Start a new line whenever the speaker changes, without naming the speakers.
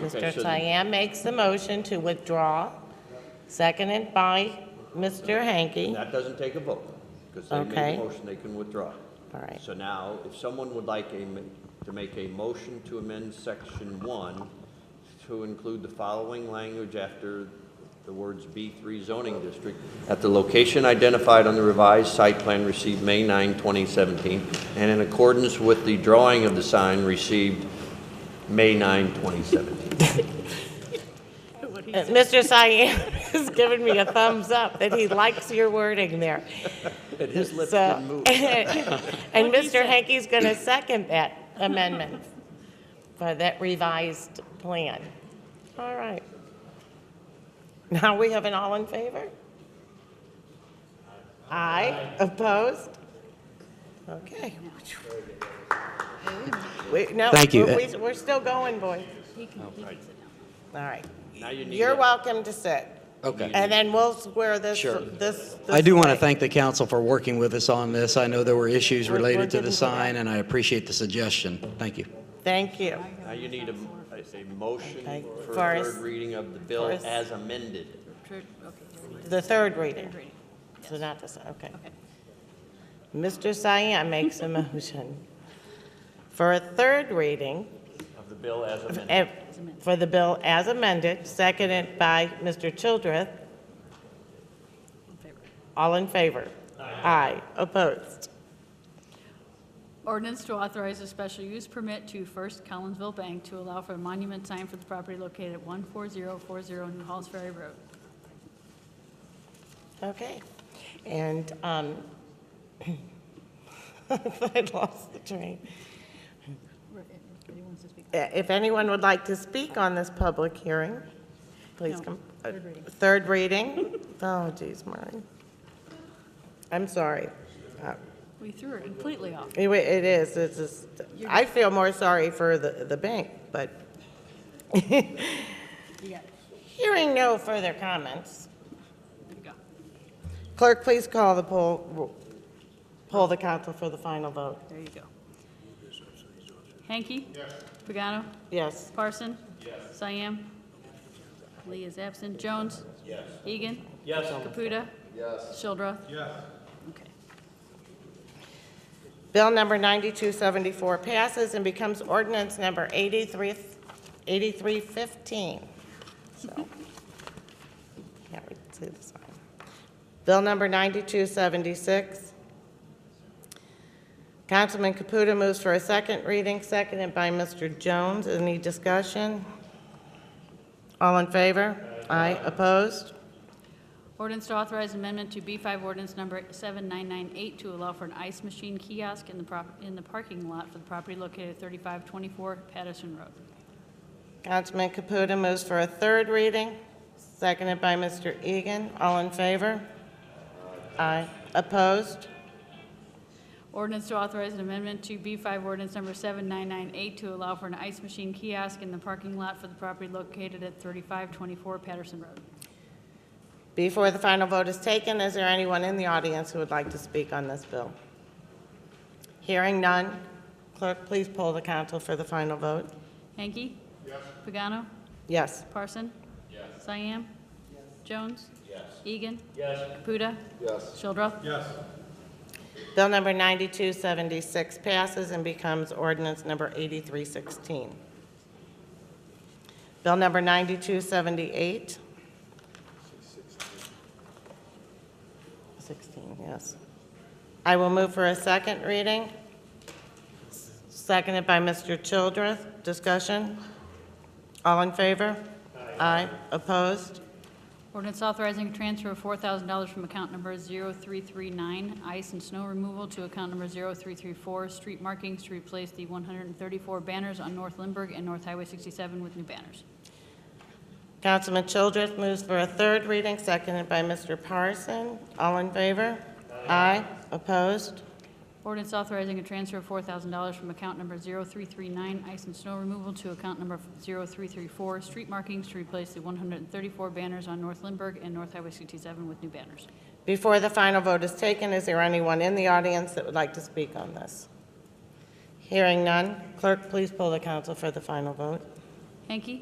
Mr.
so-
Cyan makes the motion to withdraw, seconded by Mr. Hanky.
That doesn't take a vote, because they
Okay.
made the motion, they can withdraw.
All right.
So now, if someone would like a, m- to make a motion to amend section one to include the following language after the words B three zoning district, at the location identified on the revised site plan received May 9, 2017, and in accordance with the drawing of the sign received May 9, 2017.
Uh, Mr. Cyan is giving me a thumbs up that he likes your wording there.
And his lips
So-
didn't move.
And Mr. Hankey's going to second that amendment for that revised plan. All right. Now we have an all in favor? Aye. Opposed? Okay. We- no,
Thank you.
we- we- We're still going, boys. All right.
Now you need
You're
a-
welcome to sit.
Okay.
And then we'll square this,
Sure.
this.
I do want to
this
thank the council for working with us on this. I know there were issues
We're- we're
related to
getting
the
to that.
sign, and I appreciate the suggestion. Thank you.
way. Thank you.
Now you need a, a- a motion
Okay,
for a
Forrest.
third reading of the bill
Forrest.
as amended.
The third reading. So not this, okay. Mr. Cyan makes a motion for a third reading
Of the bill as amended.
eh, for the bill as amended, seconded by Mr. Childreth. All in favor? Aye. Opposed?
Ordinance to authorize a special use permit to First Collinsville Bank to allow for a monument sign for the property located at 14040 New Halls Ferry Road.
Okay. And um, I lost the train.
Anybody wants to speak?
Uh, If anyone would like to speak on this public hearing, please
No,
come. uh,
third reading.
Third reading? Oh, geez, Maureen. I'm sorry. Uh,
We threw it completely off.
Anyway, it is, it's just, I feel more sorry for the, the bank, but
You got it.
hearing no further comments,
There you go.
clerk, please call the poll, poll the council for the final vote.
There you go. Hanky? Yes. Pagano?
Yes.
Parson? Yes. Cyan? Lee is absent. Jones? Yes. Egan? Yes. Caputa? Yes. Shildroth? Yes. Okay.
Bill number 9274 passes and becomes ordinance number 83 8315. So, Can't read- see this one. Bill number 9276. Councilman Caputa moves for a second reading, seconded by Mr. Jones. Any discussion? All in favor? Aye. Opposed?
Ordinance to authorize amendment to B5 ordinance number 7998 to allow for an ice machine kiosk in the prop, in the parking lot for the property located at 3524 Patterson Road.
Councilman Caputa moves for a third reading, seconded by Mr. Egan. All in favor? Aye. Opposed?
Ordinance to authorize an amendment to B5 ordinance number 7998 to allow for an ice machine kiosk in the parking lot for the property located at 3524 Patterson Road.
Before the final vote is taken, is there anyone in the audience who would like to speak on this bill? Hearing none, clerk, please poll the council for the final vote.
Hanky? Yes. Pagano?
Yes.
Parson? Yes. Cyan? Yes. Jones? Yes. Egan? Yes. Caputa? Yes. Shildroth? Yes.
Bill number 9276 passes and becomes ordinance number 8316. Bill number 9278. 16, yes. I will move for a second reading, seconded by Mr. Childreth. Discussion? All in favor? Aye. Opposed?
Ordinance authorizing a transfer of $4,000 from account number 0339, ice and snow removal, to account number 0334, street markings, to replace the 134 banners on North Lindbergh and North Highway 67 with new banners.
Councilman Childress moves for a third reading, seconded by Mr. Parson. All in favor? Aye. Opposed?
Ordinance authorizing a transfer of $4,000 from account number 0339, ice and snow removal, to account number 0334, street markings, to replace the 134 banners on North Lindbergh and North Highway 67 with new banners.
Before the final vote is taken, is there anyone in the audience that would like to speak on this? Hearing none, clerk, please poll the council for the final vote.
Hanky?